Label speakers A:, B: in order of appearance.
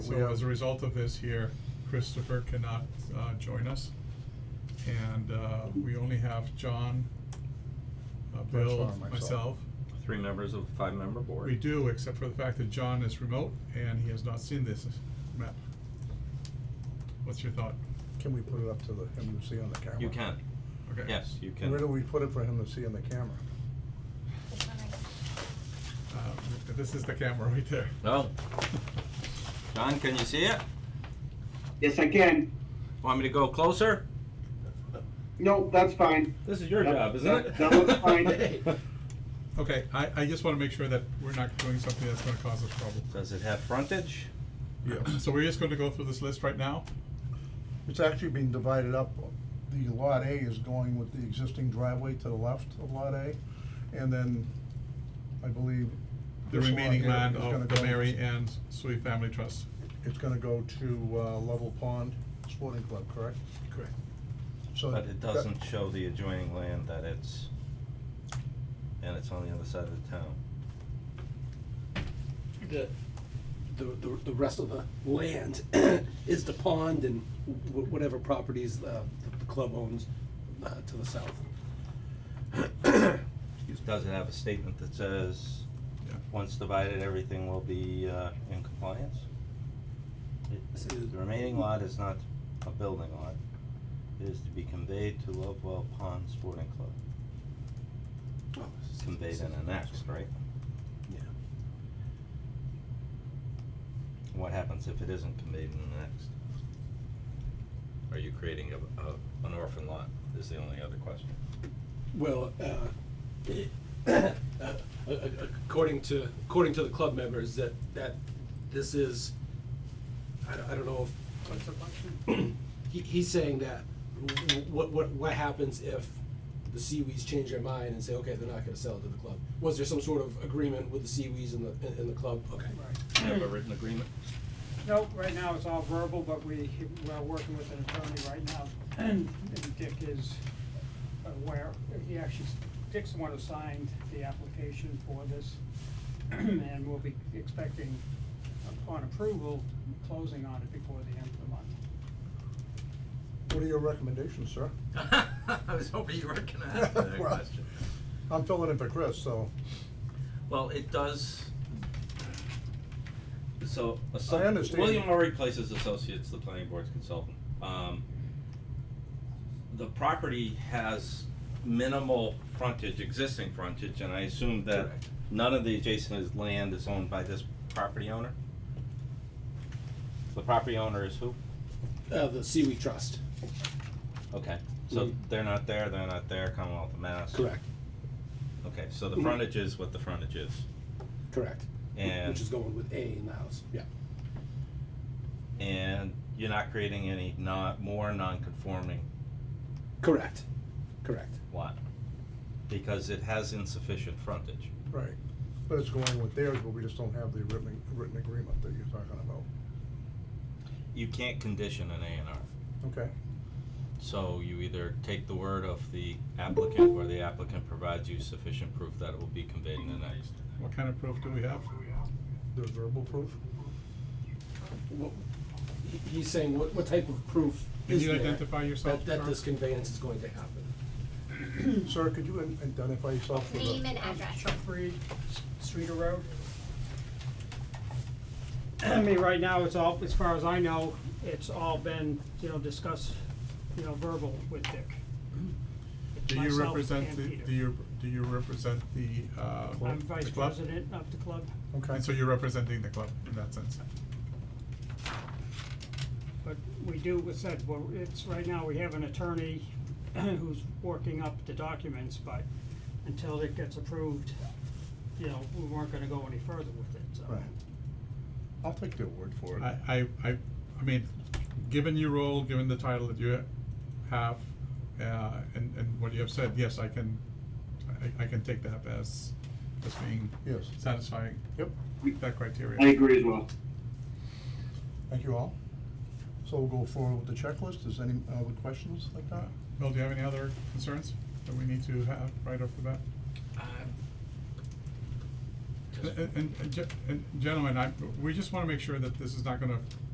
A: We
B: so
A: have-
B: as a result of this here, Christopher cannot, uh, join us. And, uh, we only have John, uh, Bill,
A: Myself, myself.
B: myself.
C: Three members of a five-member board.
B: We do, except for the fact that John is remote and he has not seen this map. What's your thought?
A: Can we put it up to the, him to see on the camera?
C: You can.
B: Okay.
C: Yes, you can.
A: Where do we put it for him to see on the camera?
B: Uh, this is the camera right there.
C: No. John, can you see it?
D: Yes, I can.
C: Want me to go closer?
D: No, that's fine.
C: This is your
D: That-
C: job, isn't it?
D: that- that looks fine.
B: Okay, I, I just wanna make sure that we're not doing something that's gonna cause us trouble.
C: Does it have frontage?
B: So we're just gonna go through this list right now?
A: It's actually being divided up. The lot A is going with the existing driveway to the left of lot A, and then I believe.
B: The
A: this lot
B: remaining
A: here
B: land
A: is gonna
B: of the
A: go-
B: Mary Ann Sui Family Trust.
A: It's gonna go to, uh, Level Pond Sporting Club, correct?
B: Correct.
A: So.
C: But it
A: that-
C: doesn't show the adjoining land that it's, and it's on the other side of the town.
E: the, the, the the rest of the land is the pond and wh- whatever properties uh, the the club owns uh, to the south.
C: Does it have a statement that says,
B: Yeah.
C: once divided, everything will be, uh, in compliance? It-
E: This is-
C: The remaining lot is not a building lot. It is to be conveyed to Lovewell Pond Sporting Club. Conveyed and annexed, right?
E: Yeah.
C: What happens if it isn't conveyed and annexed? Are you creating a, a, an orphan lot, is the only other question.
E: Well, uh, uh, according to, according to the club members, that, that this is, I don't, I don't know if. He, he's saying that, wh- what, what, what happens if the Seawees change their mind and say, okay, they're not gonna sell it to the club? Was there some sort of agreement with the Seawees and the, and- and the club? Okay.
C: Do you have a written agreement?
F: Nope, right now it's all verbal, but we, we're working with an attorney right now. And Dick is aware, he actually, Dick's the one who signed the application for this. And we'll be expecting, upon approval, closing on it before the end of the month.
A: What are your recommendations, sir?
G: I was hoping you were gonna ask that
A: Well,
G: question.
A: I'm filling in for Chris, so
C: Well, it does. So, asso-
A: I understand.
C: William Murray Places Associates, the planning board's consultant. Um, the property has minimal frontage, existing frontage, and I assume that
E: Correct.
C: none of the adjacent is land is owned by this property owner? The property owner is who?
E: Uh, the Seawee Trust.
C: Okay, so
E: Mhm.
C: they're not there, they're not there, Commonwealth of Mass. Okay, so the frontage is what the frontage is.
E: Correct.
C: And-
E: Which is going with A in the house, yeah.
C: and you're not creating any not more non-conforming
E: Correct, correct.
C: lot because it has insufficient frontage.
A: Right, but it's going with theirs, but we just don't have the written, written agreement that you're talking about.
C: You can't condition an A and R.
A: Okay,
C: So you either take the word of the applicant or the applicant provides you sufficient proof that it will be conveyed in the next.
B: What kind of proof do we have?
A: there's verbal proof?
E: What- he- He's saying what, what type of proof
B: Can
E: is
B: you
E: there?
B: identify yourself,
E: That,
B: sir?
E: that this conveyance is going to happen.
A: Sir, could you in- identify yourself for the?
H: Name and address.
F: Chuck Reed, Streeter Road. I mean, right now, it's all, as far as I know, it's all been, you know, discussed, you know, verbal with Dick.
B: Do you
F: Myself
B: represent
F: and
B: the,
F: Peter.
B: do you, do you represent the, uh,
F: I'm
B: the
F: vice
B: club?
F: president of the club,
A: Okay,
B: And so you're representing the club in that sense?
F: but we do, we said, well, it's, right now, we have an attorney who's working up the documents, but until it gets approved, you know, we weren't gonna go any further with it, so.
A: right. I'll take their word for it.
B: I, I, I, I mean, given your role, given the title that you have, uh, and, and what you have said, yes, I can, I, I can take that as, as being
A: Yes.
B: satisfying
A: Yep,
B: that criteria.
D: I agree as well.
A: thank you all. So we'll go forward with the checklist. Is any uh, other questions like that?
B: Uh, Bill, do you have any other concerns that we need to have right off the bat?
G: Um, just.
C: Uh,
B: And, and- and, ge- and gentlemen, I, we just wanna make sure that this is not gonna